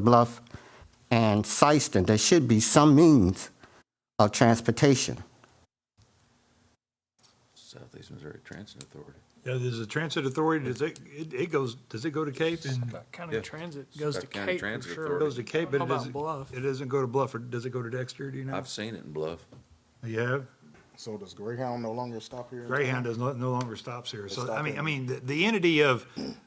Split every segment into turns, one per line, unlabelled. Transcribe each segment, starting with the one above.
Bluff, and Syston, there should be some means of transportation.
Southeast Missouri Transit Authority.
Yeah, there's a transit authority, does it, it it goes, does it go to Cape and
Scott County
Yeah.
Transit goes to
Scott County
Cape for
Transit
sure.
Authority.
goes to Cape, but
How
it
about
doesn't,
Bluff?
it doesn't go to Bluff, or does it go to Dexter, do you know?
I've seen it in Bluff.
You have?
So does Greyhound no longer stop here? in
Greyhound
town?
does not, no longer stops here. So, I
stop
mean,
here.
I mean, the- the entity of,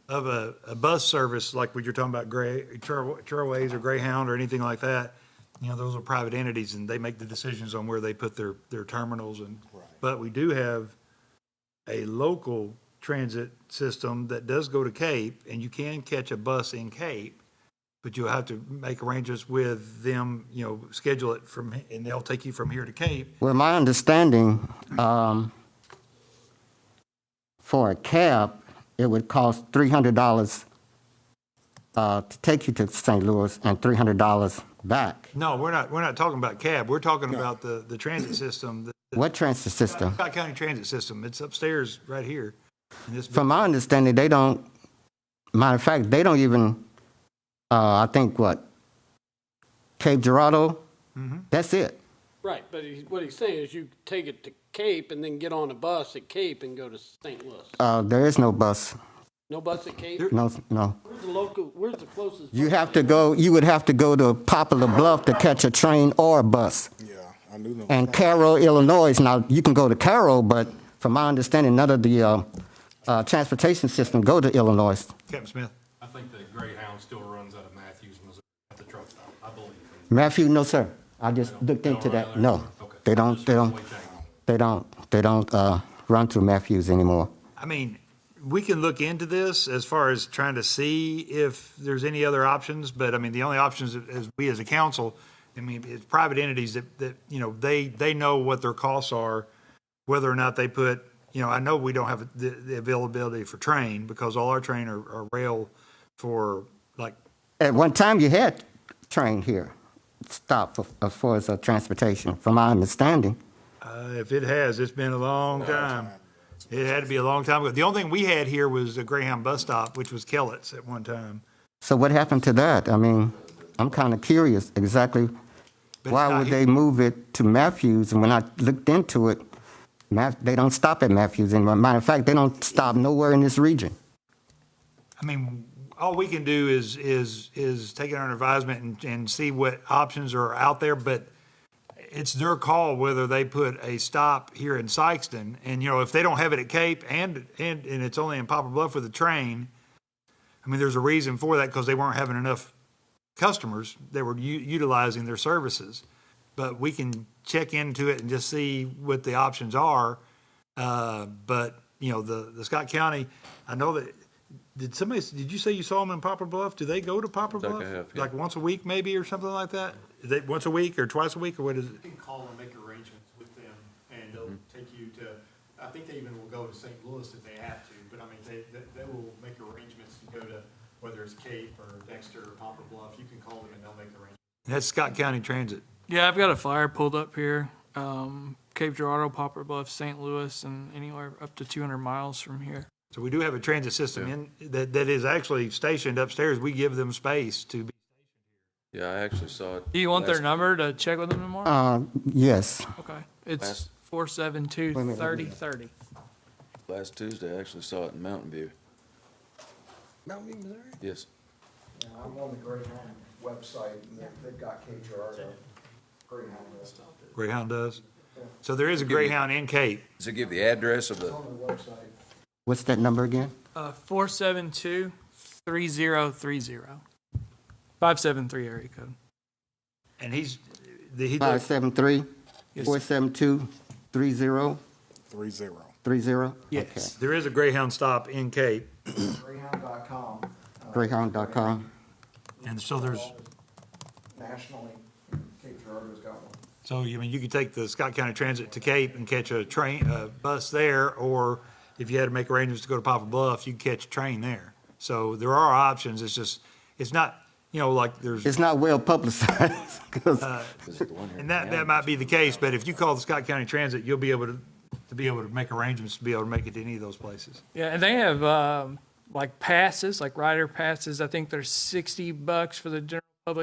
of a, a bus service, like what you're talking about, Gray, Trail- Trailways or Greyhound or anything like that, you know, those are private entities and they make the decisions on where they put their, their terminals and,
Right.
but we do have a local transit system that does go to Cape and you can catch a bus in Cape, but you'll have to make arrangements with them, you know, schedule it from, and they'll take you from here to Cape.
Well, my understanding, um, for a cab, it would cost three hundred dollars uh, to take you to St. Louis and three hundred dollars back.
No, we're not, we're not talking about cab. We're talking about the, the transit system, the
What transit system?
Scott County Transit System. It's upstairs right here in this,
From my understanding, they don't. Matter of fact, they don't even. Uh, I think what Cape Girardeau. That's it.
Right, but he, what he's saying is you take it to Cape and then get on a bus at Cape and go to St. Louis.
Uh, there is no bus.
No bus at Cape?
No, no.
Where's the local, where's the closest?
You have to go. You would have to go to Poplar Bluff to catch a train or a bus.
Yeah, I knew them.
And Carroll, Illinois. Now you can go to Carroll, but from my understanding, none of the uh, uh, transportation system go to Illinois.
Captain Smith.
I think the Greyhound still runs out of Matthews, Missouri, at the truck stop, I believe.
Matthew, no sir. I just looked into that. No, they don't. They don't. They don't. They don't uh, run through Matthews anymore.
I mean, we can look into this as far as trying to see if there's any other options, but I mean, the only options is we as a council, I mean, it's private entities that, that, you know, they, they know what their costs are, whether or not they put, you know, I know we don't have the, the availability for train because all our train are, are rail for like
At one time, you had train here stop for- as far as uh, transportation, from my understanding.
Uh, If it has, it's been a long time. It had to be a long time ago. The only thing we had here was a Greyhound bus stop, which was Kellett's at one time.
So what happened to that? I mean, I'm kind of curious exactly
But
why
it's not
would
here.
they move it to Matthews? And when I looked into it, Ma- they don't stop at Matthews. And matter of fact, they don't stop nowhere in this region.
I mean, all we can do is, is, is take it under advisement and, and see what options are out there, but it's their call whether they put a stop here in Sykeston. And, you know, if they don't have it at Cape and, and, and it's only in Poplar Bluff with a train, I mean, there's a reason for that because they weren't having enough customers that were u- utilizing their services. But we can check into it and just see what the options are. Uh, but, you know, the, the Scott County, I know that, did somebody, did you say you saw them in Poplar Bluff? Do they go to Poplar
Like I
Bluff?
have, yeah.
Like once a week maybe or something like that? Is it once a week or twice a week or what is it?
You can call and make arrangements with them, and they'll
Mm-hmm.
take you to, I think they even will go to St. Louis if they have to, but I mean, they, they, they will make arrangements to go to, whether it's Cape or Dexter or Poplar Bluff, you can call them and they'll make arrangements.
That's Scott County Transit.
Yeah, I've got a flyer pulled up here. Um, Cape Girardeau, Poplar Bluff, St. Louis, and anywhere up to 200 miles from here.
So we do have a transit system in, that, that is actually stationed upstairs. We give them space to be.
Yeah, I actually saw it.
Do you want their
last-
number to check with them tomorrow?
Uh, yes.
okay, it's
last-
472
Wait a minute, wait a
3030.
Last Tuesday, I actually saw it in Mountain View. Mountain View, Missouri? Yes.
I'm on the Greyhound website, and they've got Cape Girardeau, Greyhound.
Greyhound does. So there is a Greyhound in Cape.
Does it give the address of the,
the website.
What's that number again?
Uh, 472 3030. 573 area code.
And he's, the, he,
Five seven three,
Yes.
four seven two, three zero,
Three zero.
three zero?
Yes.
there is a Greyhound stop in Cape.
Greyhound.com. uh,
Greyhound.com.
And so there's,
Nationally, Cape Girardeau's got one.
so, you mean, you could take the Scott County Transit to Cape and catch a train, a bus there, or if you had to make arrangements to go to Papa Bluff, you catch a train there. So there are options. It's just, it's not, you know, like there's.
It's not well publicized
Uh,
'cause
is it the one here? in
And that, that
Mountain?
might be the case, but if you call the Scott County Transit, you'll be able to, to be able to make arrangements to be able to make it to any of those places.
Yeah, and they have um, like passes, like rider passes. I think they're 60 bucks for the